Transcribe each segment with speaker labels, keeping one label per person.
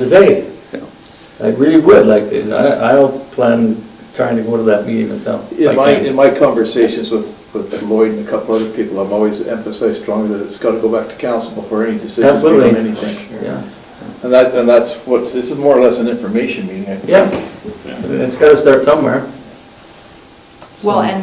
Speaker 1: to say. I really would like to, and I, I'll plan trying to go to that meeting myself.
Speaker 2: In
Speaker 1: Like
Speaker 2: my,
Speaker 1: that.
Speaker 2: in my conversations with, with Lloyd and a couple other people, I've always emphasized strongly that it's gotta go back to council before any decision is made on
Speaker 1: Absolutely.
Speaker 2: anything.
Speaker 1: Yeah,
Speaker 2: And that, and that's what, this is more or less an information meeting, I think.
Speaker 1: yeah, I mean, it's gotta start somewhere.
Speaker 3: Well, and,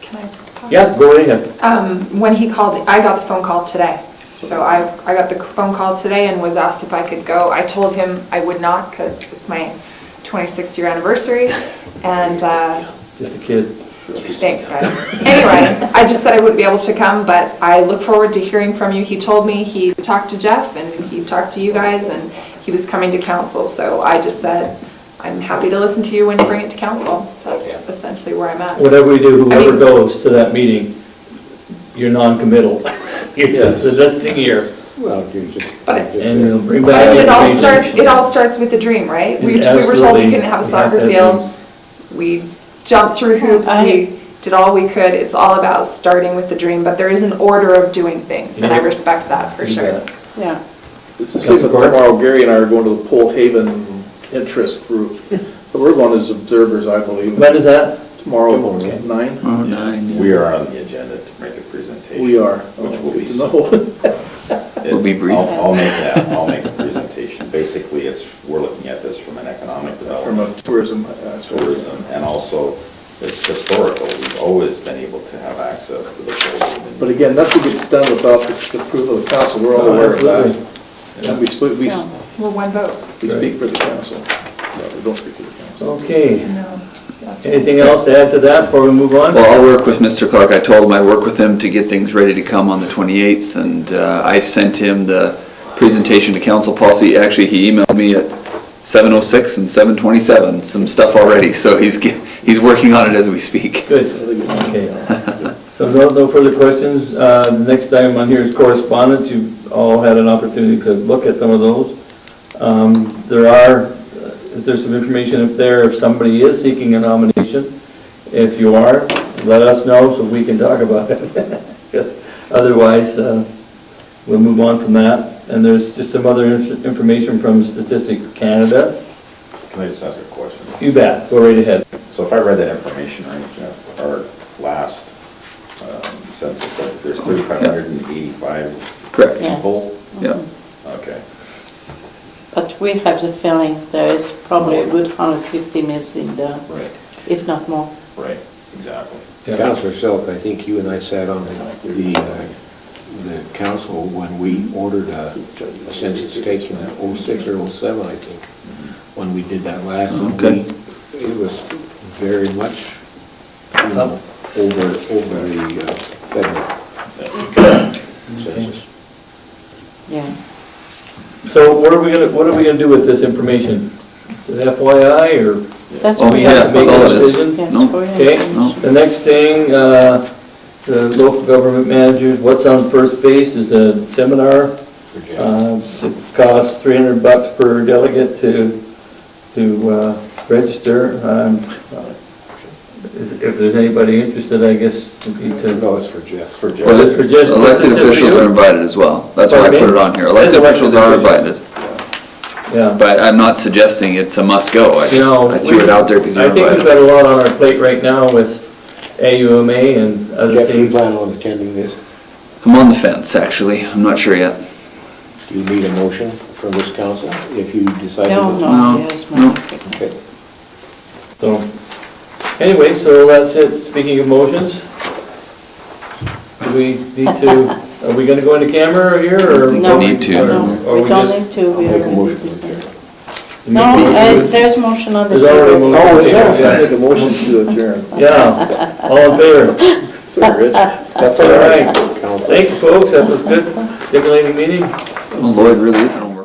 Speaker 3: can I?
Speaker 1: Yeah, go right ahead.
Speaker 3: Um, when he called, I got the phone call today. So I, I got the phone call today and was asked if I could go. I told him I would not because it's my 26th year anniversary and, uh,
Speaker 1: just a kid.
Speaker 3: Thanks, guys. Anyway, I just said I wouldn't be able to come, but I look forward to hearing from you. He told me he talked to Jeff and he talked to you guys and he was coming to council, so I just said, I'm happy to listen to you when you bring it to council. That's essentially where I'm at.
Speaker 1: Whatever we do,
Speaker 3: I
Speaker 1: whoever
Speaker 3: mean-
Speaker 1: goes to that meeting, you're non-committal. You're just the listening ear,
Speaker 4: Well, geez.
Speaker 3: But-
Speaker 1: and you'll bring back.
Speaker 3: I mean, it all
Speaker 1: information.
Speaker 3: starts, it all starts with a dream, right? We we were told
Speaker 1: Absolutely.
Speaker 3: we couldn't have a
Speaker 1: You have to
Speaker 3: soccer
Speaker 1: have
Speaker 3: field. We jumped through hoops, we did all we could. It's all about starting with the dream, but there is an order of doing things, and I
Speaker 1: Yeah.
Speaker 3: respect that for
Speaker 1: You
Speaker 3: sure.
Speaker 1: bet.
Speaker 5: Yeah,
Speaker 2: It's the same
Speaker 1: Councilor
Speaker 2: with
Speaker 1: Court?
Speaker 2: tomorrow, Gary and I are going to the Pole Haven interest group, but we're going as observers, I believe.
Speaker 1: When is that?
Speaker 2: Tomorrow,
Speaker 1: Tomorrow, okay.
Speaker 2: nine?
Speaker 6: Oh, nine, yeah.
Speaker 4: We are on the agenda to make a presentation.
Speaker 2: We are.
Speaker 4: Which will be.
Speaker 2: No.
Speaker 6: Will be brief.
Speaker 4: I'll, I'll make that, I'll make the presentation. Basically, it's, we're looking at this from an economic
Speaker 2: From a
Speaker 4: development,
Speaker 2: tourism aspect.
Speaker 4: tourism, and also it's historical. We've always been able to have access to the whole.
Speaker 2: But again, nothing gets done without the approval of the council, we're all
Speaker 1: No,
Speaker 2: aware of
Speaker 1: absolutely.
Speaker 2: that. And we speak, we,
Speaker 5: Yeah.
Speaker 3: Well, one vote.
Speaker 2: we speak for the council, No, we don't speak for the council.
Speaker 1: Okay,
Speaker 3: No. that's-
Speaker 1: anything else to add to that before we move on?
Speaker 6: Well, I'll work with Mr. Clark. I told him I'd work with him to get things ready to come on the 28th, and uh, I sent him the presentation to council policy. Actually, he emailed me at 7:06 and 7:27, some stuff already, so he's, ge- he's working on it as we speak.
Speaker 1: Good, okay. So no, no further questions. Uh, Next item on here is correspondence. You've all had an opportunity to look at some of those. Um, There are, is there some information up there if somebody is seeking a nomination? If you are, let us know so we can talk about it. Otherwise, uh, we'll move on from that. And there's just some other inf- information from Statistics Canada.
Speaker 4: Can I just ask a question?
Speaker 1: You bet, go right ahead.
Speaker 4: So if I read that information right, Jeff, our last um, census, there's 3,585
Speaker 6: Correct.
Speaker 5: Yes.
Speaker 4: people?
Speaker 6: Yeah.
Speaker 4: Okay.
Speaker 5: but we have the feeling there is probably a good 150 missing there,
Speaker 4: Right,
Speaker 5: if not more.
Speaker 4: right, exactly.
Speaker 7: Counselor Silk, I think you and I sat on the, the, uh, the council when we ordered a a census taken in '06 or '07, I think, when we did that last. one,
Speaker 6: Okay.
Speaker 7: we- It was very much, you know, over, over the uh, federal census.
Speaker 5: Yeah.
Speaker 1: So what are we gonna, what are we gonna do with this information? Is it FYI, or
Speaker 5: That's
Speaker 6: Oh,
Speaker 5: what
Speaker 1: we
Speaker 6: yeah,
Speaker 1: have to make
Speaker 6: that's all
Speaker 1: a
Speaker 6: it is.
Speaker 1: decision?
Speaker 5: Yeah,
Speaker 6: No.
Speaker 5: for your
Speaker 1: Okay,
Speaker 5: information.
Speaker 1: the next thing, uh, the local government managers, what's on first base is a seminar. Uh, It costs 300 bucks per delegate to, to uh, register. Um, is- If there's anybody interested, I guess, would be to...
Speaker 7: No, it's for Jeff.
Speaker 4: For Jeff.
Speaker 1: Well, this for just-
Speaker 6: Elected
Speaker 1: this is just
Speaker 6: officials
Speaker 1: you?
Speaker 6: are invited as well. That's why I
Speaker 1: Pardon me?
Speaker 6: put it on here.
Speaker 1: It says
Speaker 6: Elected officials are
Speaker 1: elected officials.
Speaker 6: invited,
Speaker 1: Yeah.
Speaker 6: but I'm not suggesting it's a must-go. I
Speaker 1: You
Speaker 6: just,
Speaker 1: know,
Speaker 6: I threw it out there because you're
Speaker 1: I think we've
Speaker 6: invited.
Speaker 1: got a lot on our plate right now with AUMA and other
Speaker 7: Jeff, do you
Speaker 1: things.
Speaker 7: plan on attending this?
Speaker 6: I'm on the fence, actually. I'm not sure yet.
Speaker 7: Do you need a motion from this council if you decide? to
Speaker 5: No,
Speaker 7: go?
Speaker 6: No,
Speaker 5: no, yes, no.
Speaker 6: no.
Speaker 7: Okay.
Speaker 1: So, anyway, so that's it, speaking of motions. Do we need to, are we gonna go into camera here, or?
Speaker 6: think
Speaker 5: No,
Speaker 6: we need to.
Speaker 5: no,
Speaker 1: Or
Speaker 5: we
Speaker 1: we
Speaker 5: don't
Speaker 1: just?
Speaker 5: need to, we
Speaker 7: I'll make a
Speaker 5: already
Speaker 7: motion
Speaker 5: decided.
Speaker 7: to
Speaker 5: No, uh, there's motion on the
Speaker 1: There's already a
Speaker 5: table.
Speaker 1: motion.
Speaker 7: Oh, is there?
Speaker 1: Yeah.
Speaker 2: Make a motion to adjourn.
Speaker 1: Yeah, all in favor?
Speaker 2: Sorry, Rich.
Speaker 7: That's
Speaker 1: all right.
Speaker 7: Council.
Speaker 1: Thank you, folks, that was good, stimulating meeting.
Speaker 6: Well, Lloyd really is an old